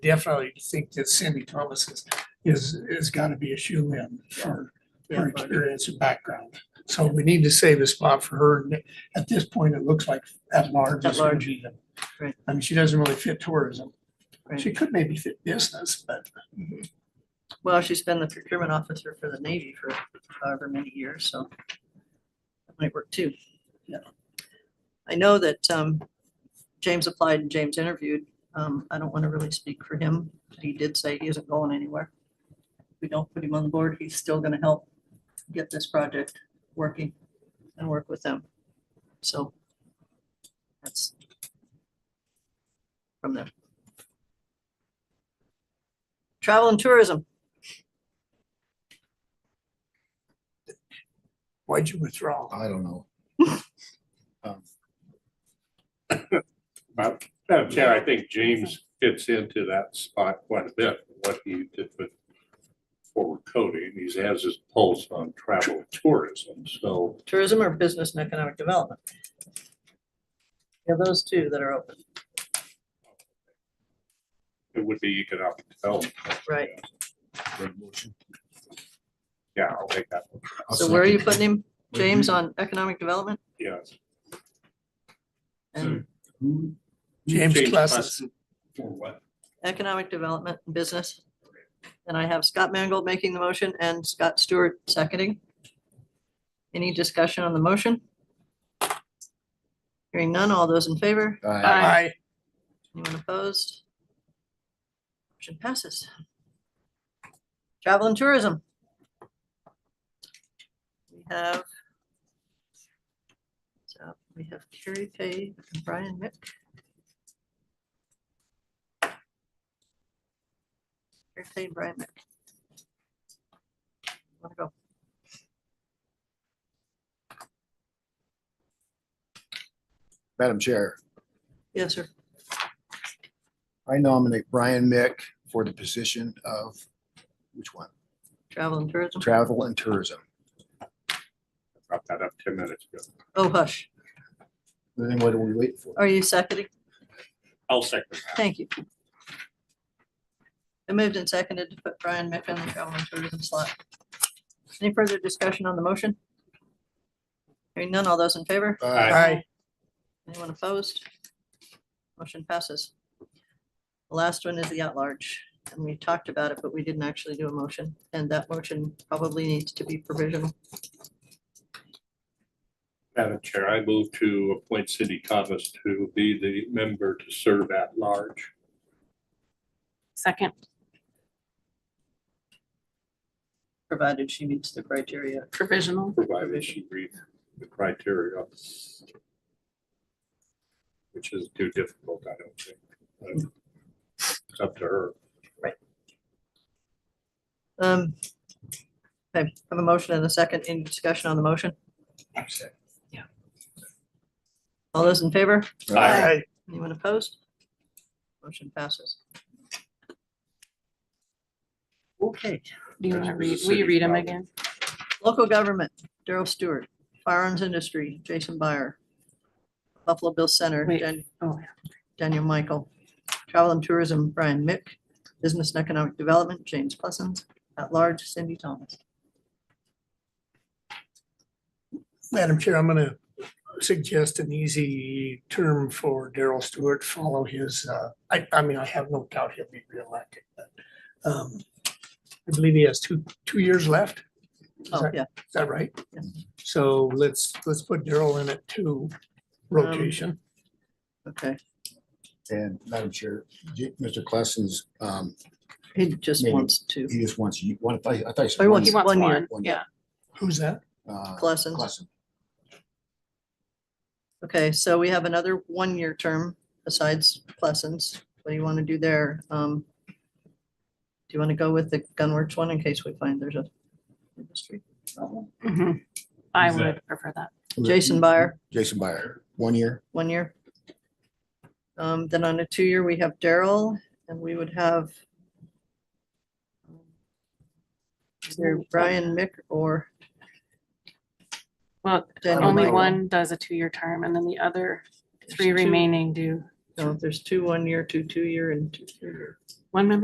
definitely think that Cindy Thomas is, is, is gotta be a shoe in for her experience and background. So we need to save a spot for her. And At this point, it looks like at large At is gonna large, be the. right. I mean, she doesn't really fit tourism. Right. She could maybe fit business, but Well, she's been the procurement officer for the Navy for however many years, so that might work too. Yeah. I know that um, James applied and James interviewed. Um, I don't want to really speak for him. He did say he isn't going anywhere. If we don't put him on the board, he's still going to help get this project working and work with them. So that's from them. Travel and tourism. why'd you withdraw? I don't know. Madam Madam Chair, I think James fits into that spot quite a bit, what he did with forward coding. He has his pulse on travel and tourism, so tourism or business and economic development. Yeah, those two that are open, it would be economic development. right? Yeah, I'll take that one. So where are you putting him? James on economic development Yeah. and Who? James Classes, Classes For what? economic development and business. And I have Scott Mangold making the motion and Scott Stewart seconding. Any discussion on the motion? Hearing none, all those in favor? Aye. aye, Anyone opposed? Motion passes. Travel and tourism. We have. So we have Carrie Pay and Brian Mick. Carrie Pay and Brian Mick. Want to go? Madam Chair, Yes, sir. I nominate Brian Mick for the position of, which one? Travel and tourism. Travel and Tourism. Brought that up ten minutes ago. Oh, hush. Then what are we waiting for? Are you seconding? I'll second that. Thank you. I moved and seconded to put Brian Mick on the travel and tourism slot. Any further discussion on the motion? Hearing none, all those in favor? Aye. aye, Anyone opposed? Motion passes. The last one is the at-large, and we talked about it, but we didn't actually do a motion, and that motion probably needs to be provisional. Madam Chair, I move to appoint Cindy Thomas to be the member to serve at large. Second, Provided she meets the criteria. provisional. provided she meets the criteria. Which is too difficult, I don't think. but It's up to her. Um, okay, have a motion and a second, any discussion on the motion? All those in favor? Aye. aye, Anyone opposed? Motion passes. Okay, Do you want to This read, is a will you city read them problem. again? local government, Daryl Stewart, firearms industry, Jason Byer, Buffalo Bill Center, Wait. Dan- Oh, yeah. Daniel Michael, travel and tourism, Brian Mick, business and economic development, James Plessens, at large, Cindy Thomas. Madam Chair, I'm gonna suggest an easy term for Daryl Stewart, follow his, uh, I, I mean, I have no doubt he'll be reelected, but, um, I believe he has two, two years left. Is Oh, that- yeah, is that right? Yes. So let's, let's put Daryl in at two rotation. okay. And Madam Chair, J- Mr. Klessens, um, He just Maybe. wants to. he just wants you, what if I, I thought you Oh, he said. wants He one- wants one year. one, One yeah. year. Who's that? uh, Plessens. Klessen. Okay, so we have another one-year term besides Plessens. What do you want to do there? Um, Do you want to go with the Gunworks one in case we find there's a industry? problem? Mhm. I Who's that? would prefer that. Jason Byer, Jason Byer, one year. one year. Um, Then on a two-year, we have Daryl and we would have either Brian Mick or Well, Daniel only Michael. one does a two-year term and then the other There's three two. remaining do No, there's two one year, two two year, and two three year. One member